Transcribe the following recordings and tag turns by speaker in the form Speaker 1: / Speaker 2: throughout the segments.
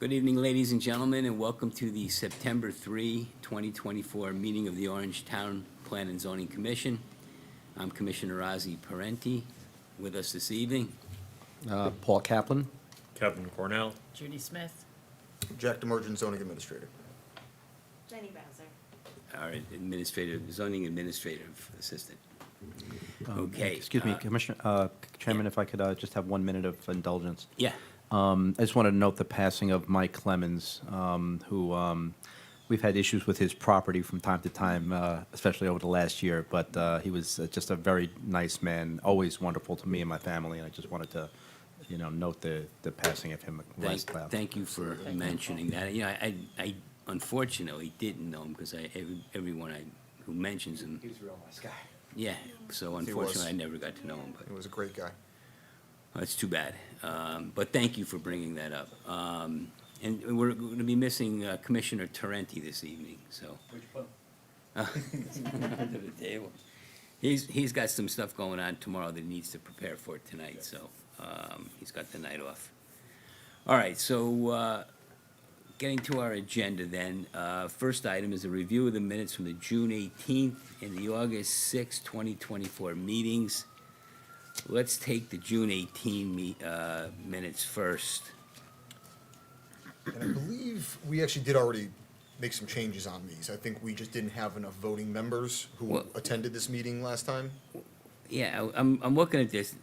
Speaker 1: Good evening, ladies and gentlemen, and welcome to the September 3, 2024 meeting of the Orange Town Plan and Zoning Commission. I'm Commissioner Ozzie Parenti with us this evening.
Speaker 2: Uh, Paul Kaplan.
Speaker 3: Kevin Cornell.
Speaker 4: Judy Smith.
Speaker 5: Jack Demerjen, zoning administrator.
Speaker 6: Jenny Bowser.
Speaker 1: our administrative, zoning administrative assistant.
Speaker 2: Um,
Speaker 1: Okay,
Speaker 2: Excuse me,
Speaker 1: uh,
Speaker 2: Commissioner, uh, Chairman, if I could uh, just have one minute of indulgence.
Speaker 1: Yeah,
Speaker 2: Um, I just wanted to note the passing of Mike Clemens, um, who, um, we've had issues with his property from time to time, uh, especially over the last year, but uh, he was uh, just a very nice man, always wonderful to me and my family, and I just wanted to, you know, note the, the passing of him last
Speaker 1: thank,
Speaker 2: cloud.
Speaker 1: thank you for
Speaker 4: Thank you.
Speaker 1: mentioning that. You know, I, I unfortunately didn't know him because I, every- everyone I, who mentions him,
Speaker 2: was a real nice guy.
Speaker 1: yeah, so unfortunately, I never got to know him, but
Speaker 5: He was a great guy.
Speaker 1: That's too bad. Um, But thank you for bringing that up. Um, And we're going to be missing uh, Commissioner Tarenti this evening, so. Which one? Under the table. He's, he's got some stuff going on tomorrow that he needs to prepare for tonight, so um, he's got the night off. All right, so uh, getting to our agenda then, uh, first item is a review of the minutes from the June 18th and the August 6th, 2024 meetings. Let's take the June 18 me- uh, minutes first.
Speaker 5: And I believe we actually did already make some changes on these. I think we just didn't have enough voting members who
Speaker 1: Well-
Speaker 5: attended this meeting last time.
Speaker 1: Yeah, I- I'm, I'm looking at this.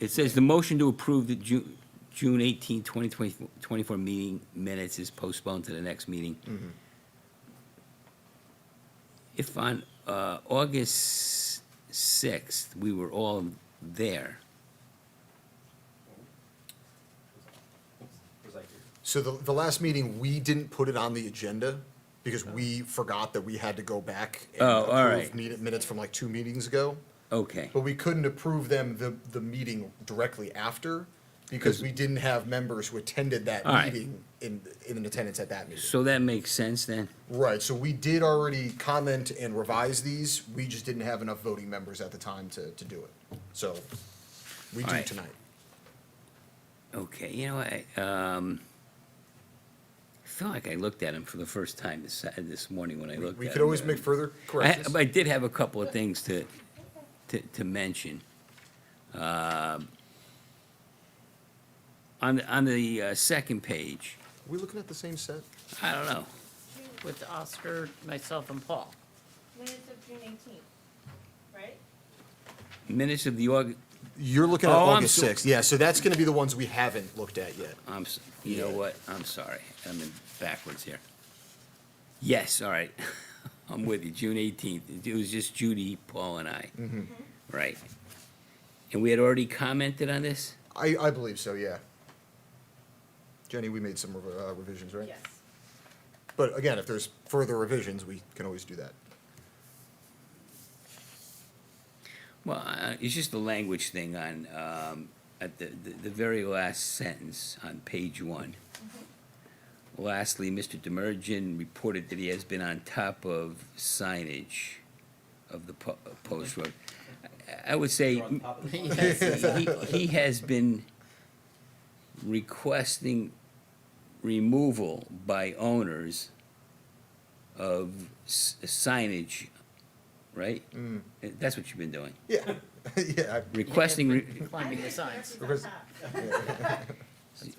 Speaker 1: It says the motion to approve the Ju- June 18, 2024 meeting minutes is postponed to the next meeting. If on uh, August 6th, we were all there,
Speaker 5: So the, the last meeting, we didn't put it on the agenda because we forgot that we had to go back and
Speaker 1: Oh, all
Speaker 5: approve
Speaker 1: right.
Speaker 5: meet- minutes from like two meetings ago.
Speaker 1: okay.
Speaker 5: But we couldn't approve them the, the meeting directly after because we didn't have members who attended that
Speaker 1: All right.
Speaker 5: meeting in, in attendance at that meeting.
Speaker 1: So that makes sense then?
Speaker 5: Right, so we did already comment and revise these, we just didn't have enough voting members at the time to, to do it. So, we do
Speaker 1: Alright.
Speaker 5: tonight.
Speaker 1: Okay, you know, I, um, I feel like I looked at him for the first time this, uh, this morning when I looked at
Speaker 5: We
Speaker 1: him.
Speaker 5: could always make further
Speaker 1: I,
Speaker 5: corrections.
Speaker 1: I did have a couple of things to, to, to mention. Um, On, the- on the uh, second page,
Speaker 5: We looking at the same set?
Speaker 1: I don't know,
Speaker 4: With Oscar, myself, and Paul.
Speaker 6: Minutes of June eighteenth, right?
Speaker 1: minutes of the Aug,
Speaker 5: You're looking at
Speaker 1: Oh, I'm
Speaker 5: August
Speaker 1: so-
Speaker 5: sixth, yeah, so that's gonna be the ones we haven't looked at yet.
Speaker 1: I'm, s- you know
Speaker 5: Yeah.
Speaker 1: what, I'm sorry, I'm in backwards here. Yes, all right, I'm with you, June eighteenth, it was just Judy, Paul, and I, right? And we had already commented on this?
Speaker 5: I, I believe so, yeah. Jenny, we made some rev- uh, revisions, right?
Speaker 6: Yes.
Speaker 5: But again, if there's further revisions, we can always do that.
Speaker 1: Well, uh, it's just the language thing on, um, at the, the the very last sentence on page one. Lastly, Mr. Demerjen reported that he has been on top of signage of the po- uh, post road. I- I would say he, he- he has been requesting removal by owners of s- signage, right?
Speaker 5: Mm.
Speaker 1: Uh, That's what you've been doing.
Speaker 5: Yeah, yeah, I-
Speaker 1: Requesting, re-
Speaker 4: Climbing the signs.
Speaker 5: Because-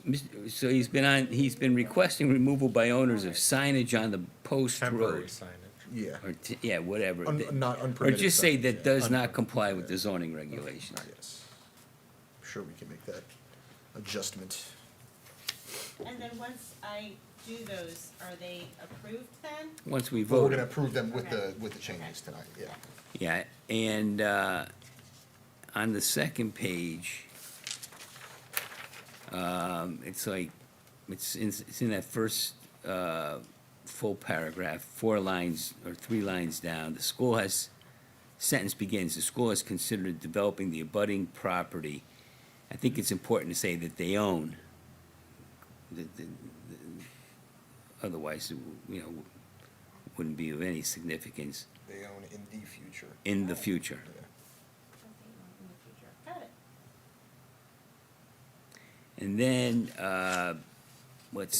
Speaker 1: Mr. so he's been on, he's been requesting removal by owners of signage on the post
Speaker 3: Temporary
Speaker 1: road.
Speaker 3: signage.
Speaker 5: yeah,
Speaker 1: Or, t- yeah, whatever.
Speaker 5: Un-
Speaker 1: Th-
Speaker 5: not
Speaker 1: Or
Speaker 5: unpermitted.
Speaker 1: just say
Speaker 5: signage,
Speaker 1: that
Speaker 5: yeah.
Speaker 1: does not comply with the zoning regulations.
Speaker 5: Yes. I'm Sure, we can make that adjustment.
Speaker 6: And then once I do those, are they approved then?
Speaker 1: Once we
Speaker 5: But we're
Speaker 1: vote,
Speaker 5: gonna approve them with the, with the changes tonight, yeah.
Speaker 1: yeah, and, uh, on the second page, um, it's like, it's in, it's in that first, uh, full paragraph, four lines or three lines down, the school has, sentence begins, the school has considered developing the abutting property. I think it's important to say that they own. The- the- the- Otherwise, it w- you know, wouldn't be of any significance
Speaker 5: They own in the future.
Speaker 1: in the future.
Speaker 6: Something in the future. Got it.
Speaker 1: And then, uh, let's